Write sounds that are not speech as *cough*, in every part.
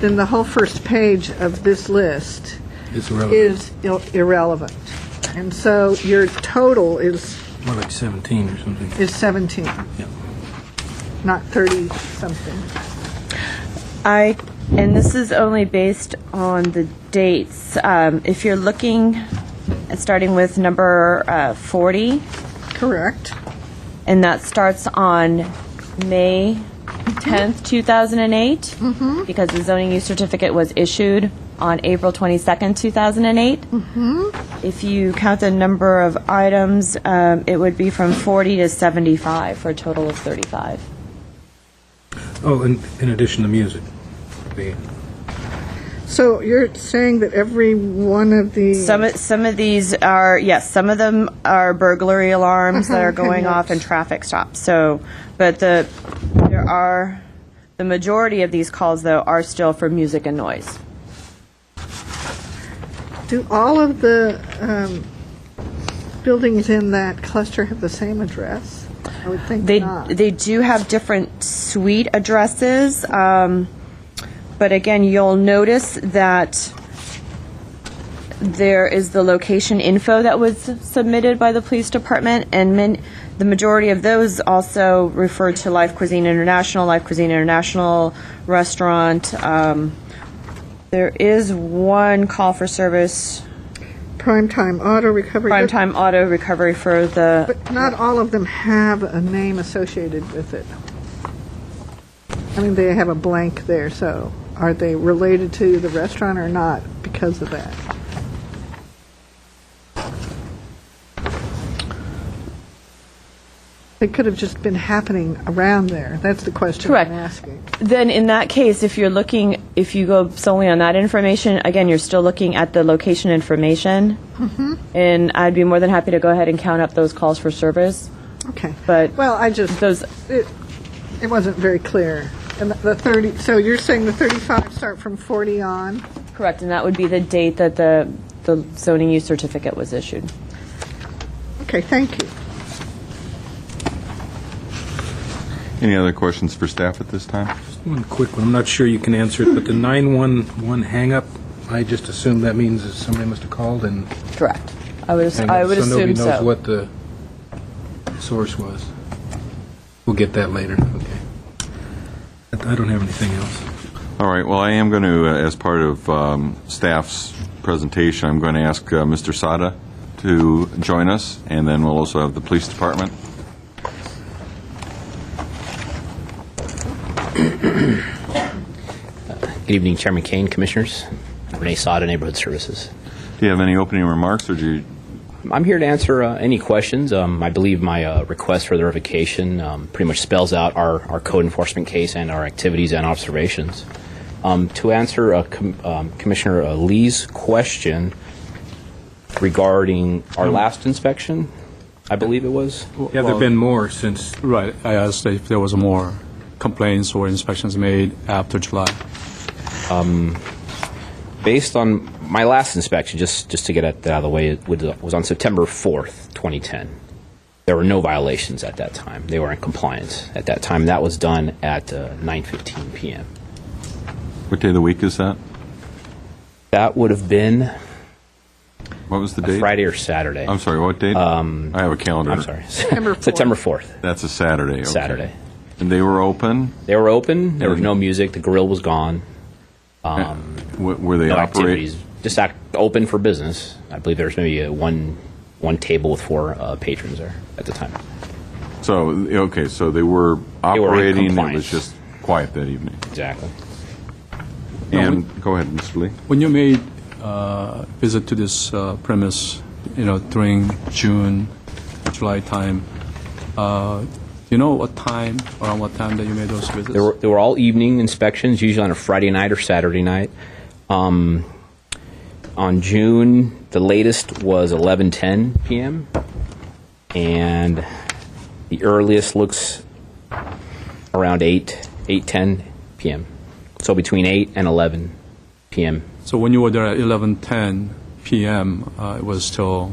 then the whole first page of this list It's irrelevant, is il- irrelevant. And so your total is, more like 17 or something. is 17, Yeah. not 30-something. I, and this is only based on the dates. Um, If you're looking, at starting with number uh, 40, Correct. and that starts on May 10th, 2008, because the zoning use certificate was issued on April 22nd, 2008. If you count the number of items, um, it would be from 40 to 75, for a total of 35. Oh, and in addition to music, the So you're saying that every one of the... Some of- some of these are yes, some of them are burglary alarms that are going off and traffic stops. So, but the there are the majority of these calls though are still for music and noise. Do all of the um, buildings in that cluster have the same address? I would think They not. they do have different suite addresses, um, but again, you'll notice that there is the location info that was submitted by the police department, and min, the majority of those also refer to Life Cuisine International, Life Cuisine International Restaurant. Um, there is one call for service, Primetime Auto Recovery. Primetime Auto Recovery for the But not all of them have a name associated with it. I mean, they have a blank there, so are they related to the restaurant or not because of that? They could have just been happening around there. That's the question Correct. I'm asking. Then in that case, if you're looking, if you go solely on that information, again, you're still looking at the location information. And I'd be more than happy to go ahead and count up those calls for service. Okay. But Well, I just, those- it, it wasn't very clear. And the- the 30, so you're saying the 35 start from 40 on? Correct, and that would be the date that the, the zoning use certificate was issued. Okay, thank you. Any other questions for staff at this time? One quick one, I'm not sure you can answer it, but the 911 hang-up, I just assume that means that somebody must have called and... Correct. I would, ass- hung I up, would assume nobody knows so. what the source was. We'll get that later, okay. I I don't have anything else. All right, well, I am going to, as part of um, staff's presentation, I'm going to ask uh, Mr. Sada to join us, and then we'll also have the police department. Good evening, Chairman Kane, Commissioners. Renee Sada, Neighborhood Services. Do you have any opening remarks, or do you, I'm here to answer uh, any questions. Um, I believe my uh, request for the revocation um, pretty much spells out our, our code enforcement case and our activities and observations. Um, to answer uh, Com- um, Commissioner uh, Lee's question regarding our last inspection, I believe it was. Yeah, there've been more since, Right. I asked if there was more complaints or inspections made after July. based on my last inspection, just just to get that out of the way, it was was on September 4th, 2010. There were no violations at that time. They were in compliance at that time. That was done at uh, 9:15 p.m. what day of the week is that? That would have been What was the a date? Friday or Saturday. I'm sorry, what date? Um... I have a calendar. I'm sorry. *laughs* September 4th. September 4th. That's a Saturday, okay. Saturday. And they were open? They were open. There was Mhm. no music. The grill was gone. W- Were they No operating? activities. Just act open for business. I believe there was maybe uh one one table with four uh, patrons there at the time. So, okay, so they were in operating, it was compliance. just quiet that evening. Exactly. And, go ahead, Mr. Lee. When you made uh, visit to this uh, premise, you know, during June, July time, uh, do you know what time, around what time that you made those visits? They were, they were all evening inspections, usually on a Friday night or Saturday night. Um, on June, the latest was 11:10 p.m. and the earliest looks around 8 8:10 p.m. So between 8 and 11 p.m. so when you were there at 11:10 p.m., uh, it was still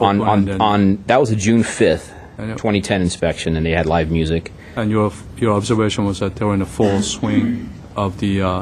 on open on, and, on that was a June 5th, I know. 2010 inspection, and they had live music. and your your observation was that they were in the full swing of the uh,